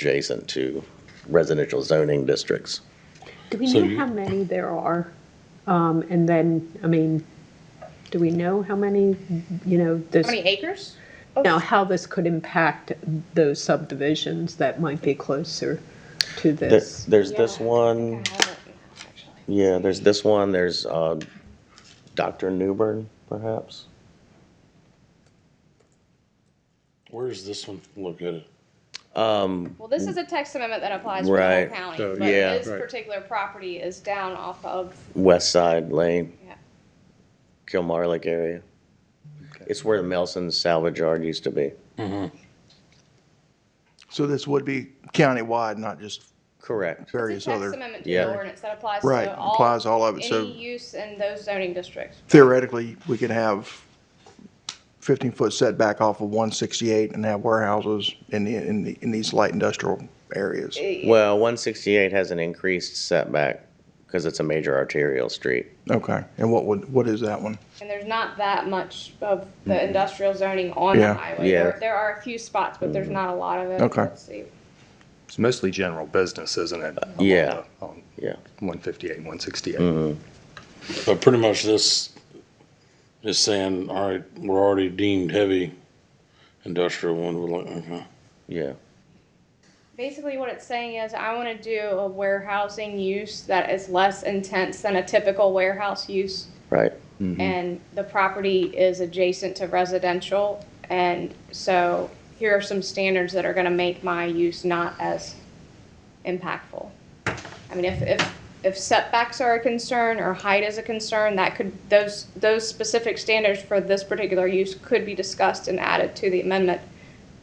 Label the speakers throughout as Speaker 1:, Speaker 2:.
Speaker 1: adjacent to residential zoning districts.
Speaker 2: Do we
Speaker 3: So
Speaker 2: know
Speaker 3: you-
Speaker 2: how many there are? Um, and then, I mean, do we know how many, you know, this,
Speaker 4: How many acres?
Speaker 2: now how this could impact those subdivisions that might be closer to
Speaker 1: There-
Speaker 2: this?
Speaker 1: There's this one, yeah, there's this one, there's uh, Dr. Newbern, perhaps?
Speaker 3: Where is this one located?
Speaker 1: Um,
Speaker 4: Well, this is a text amendment that applies for the whole
Speaker 1: Right.
Speaker 4: county,
Speaker 3: So,
Speaker 4: but
Speaker 1: yeah.
Speaker 4: this
Speaker 3: Right.
Speaker 4: particular property is down off of,
Speaker 1: West Side Lane,
Speaker 4: yeah.
Speaker 1: Kilmarlock area. It's where the Melson's Salvage Yard used to be.
Speaker 5: So this would be countywide, not just
Speaker 1: Correct.
Speaker 4: It's
Speaker 5: various
Speaker 4: a text
Speaker 5: other.
Speaker 4: amendment to the
Speaker 1: Yeah.
Speaker 4: ordinance that applies
Speaker 5: Right,
Speaker 4: to all.
Speaker 5: applies all of it, so-
Speaker 4: Any use in those zoning districts.
Speaker 5: Theoretically, we could have 15-foot setback off of 168 and have warehouses in the, in the, in these light industrial areas.
Speaker 1: Well, 168 has an increased setback because it's a major arterial street.
Speaker 5: Okay, and what would, what is that one?
Speaker 4: And there's not that much of the industrial zoning on the
Speaker 5: Yeah.
Speaker 4: highway.
Speaker 1: Mm-hmm. Yeah. Mm-hmm.
Speaker 4: There- There are a few spots, but there's not a lot of it.
Speaker 5: Okay.
Speaker 4: Let's see.
Speaker 6: It's mostly general business, isn't it?
Speaker 1: yeah.
Speaker 6: On
Speaker 1: Yeah.
Speaker 6: 158, 168.
Speaker 3: But pretty much this is saying, all right, we're already deemed heavy industrial one, we're like, okay.
Speaker 1: Yeah.
Speaker 4: Basically, what it's saying is I want to do a warehousing use that is less intense than a typical warehouse use.
Speaker 1: Right.
Speaker 4: and the property is adjacent to residential. And so here are some standards that are going to make my use not as impactful. I mean, if, if, if setbacks are a concern or height is a concern, that could, those, those specific standards for this particular use could be discussed and added to the amendment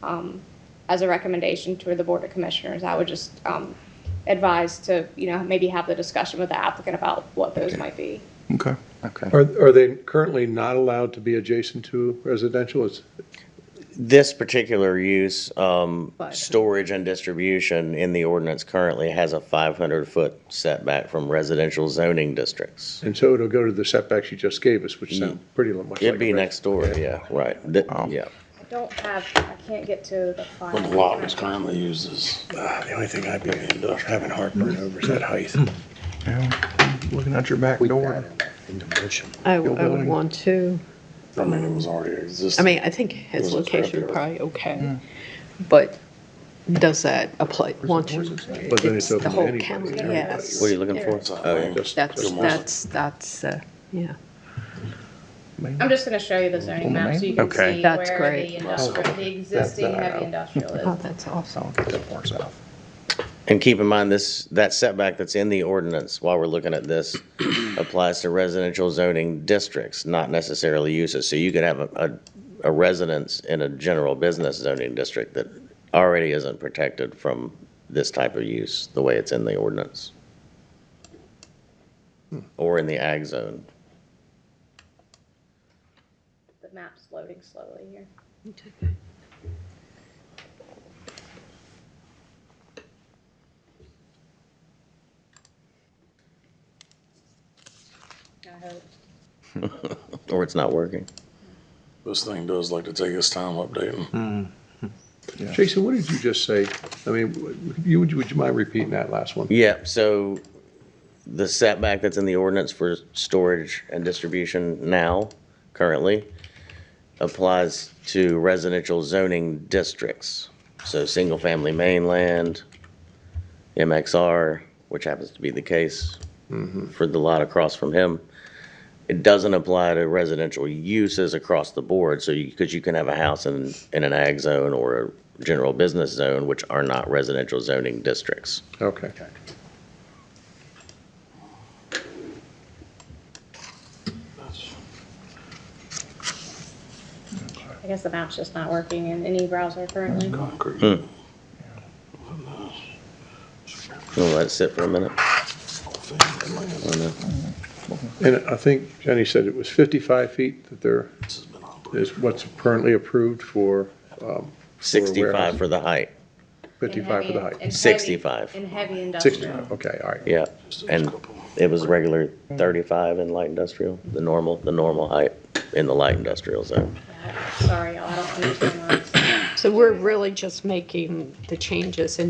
Speaker 4: um, as a recommendation to the Board of Commissioners. I would just um, advise to, you know, maybe have the discussion with the applicant about what those might be.
Speaker 5: Okay.
Speaker 6: Okay.
Speaker 7: Are, are they currently not allowed to be adjacent to residential? It's-
Speaker 1: This particular use, um,
Speaker 2: But-
Speaker 1: storage and distribution in the ordinance currently has a 500-foot setback from residential zoning districts.
Speaker 7: And so it'll go to the setbacks you just gave us, which sound pretty much like.
Speaker 1: It'd
Speaker 7: a
Speaker 1: be
Speaker 7: res-
Speaker 1: next door, yeah, right, Th- yeah.
Speaker 4: I don't have, I can't get to the file.
Speaker 3: What lot was currently used is,
Speaker 8: The only thing I'd be having heartburn over is that height.
Speaker 5: Yeah, Looking out your back door.
Speaker 6: In the motion.
Speaker 2: I, I
Speaker 5: Your
Speaker 2: would
Speaker 5: building.
Speaker 2: want to,
Speaker 3: I mean, it was already
Speaker 2: I
Speaker 3: existing.
Speaker 2: mean, I think his
Speaker 3: It was a
Speaker 2: location
Speaker 3: scrapyard.
Speaker 2: probably okay,
Speaker 7: Hmm.
Speaker 2: but does that apply, want you?
Speaker 7: But then it's open
Speaker 2: the
Speaker 7: to
Speaker 2: whole
Speaker 7: anybody,
Speaker 2: county,
Speaker 7: everybody.
Speaker 2: Yes.
Speaker 1: What are you looking for?
Speaker 3: It's a
Speaker 1: Oh, yeah.
Speaker 3: land.
Speaker 7: Just-
Speaker 2: That's,
Speaker 7: just-
Speaker 2: that's, that's, uh, yeah.
Speaker 4: I'm just gonna show you the zoning map so you can
Speaker 6: Okay.
Speaker 4: see where
Speaker 2: That's
Speaker 4: the
Speaker 2: great.
Speaker 4: industrial, the existing heavy industrial
Speaker 2: Oh,
Speaker 4: is.
Speaker 2: that's awesome.
Speaker 6: Don't get that far south.
Speaker 1: And keep in mind, this, that setback that's in the ordinance, while we're looking at this, applies to residential zoning districts, not necessarily uses. So you could have a, a a residence in a general business zoning district that already isn't protected from this type of use, the way it's in the ordinance. Or in the ag zone.
Speaker 4: The map's loading slowly here. I hope.
Speaker 1: Or it's not working.
Speaker 3: This thing does like to take its time updating.
Speaker 7: Jason, what did you just say? I mean, would you, would you- would you mind repeating that last one?
Speaker 1: Yeah, so the setback that's in the ordinance for storage and distribution now, currently, applies to residential zoning districts. So single-family mainland, MXR, which happens to be the case for the lot across from him. It doesn't apply to residential uses across the board, so you, because you can have a house in, in an ag zone or a general business zone, which are not residential zoning districts.
Speaker 7: Okay.
Speaker 4: I guess the map's just not working in any browser currently.
Speaker 3: Concrete.
Speaker 1: We'll let it sit for a minute. I know.
Speaker 7: And I think Jenny said it was 55 feet that there
Speaker 3: This has been operating.
Speaker 7: is what's currently approved for um,
Speaker 1: Sixty-five for the height,
Speaker 7: 55 for the height.
Speaker 1: 65.
Speaker 4: In heavy industrial.
Speaker 7: 65, okay, all right.
Speaker 1: yeah. And it was regular thirty-five in light industrial, the normal, the normal height in the light industrial zone.
Speaker 4: Sorry, y'all, I don't understand why it's-
Speaker 2: So we're really just making the changes in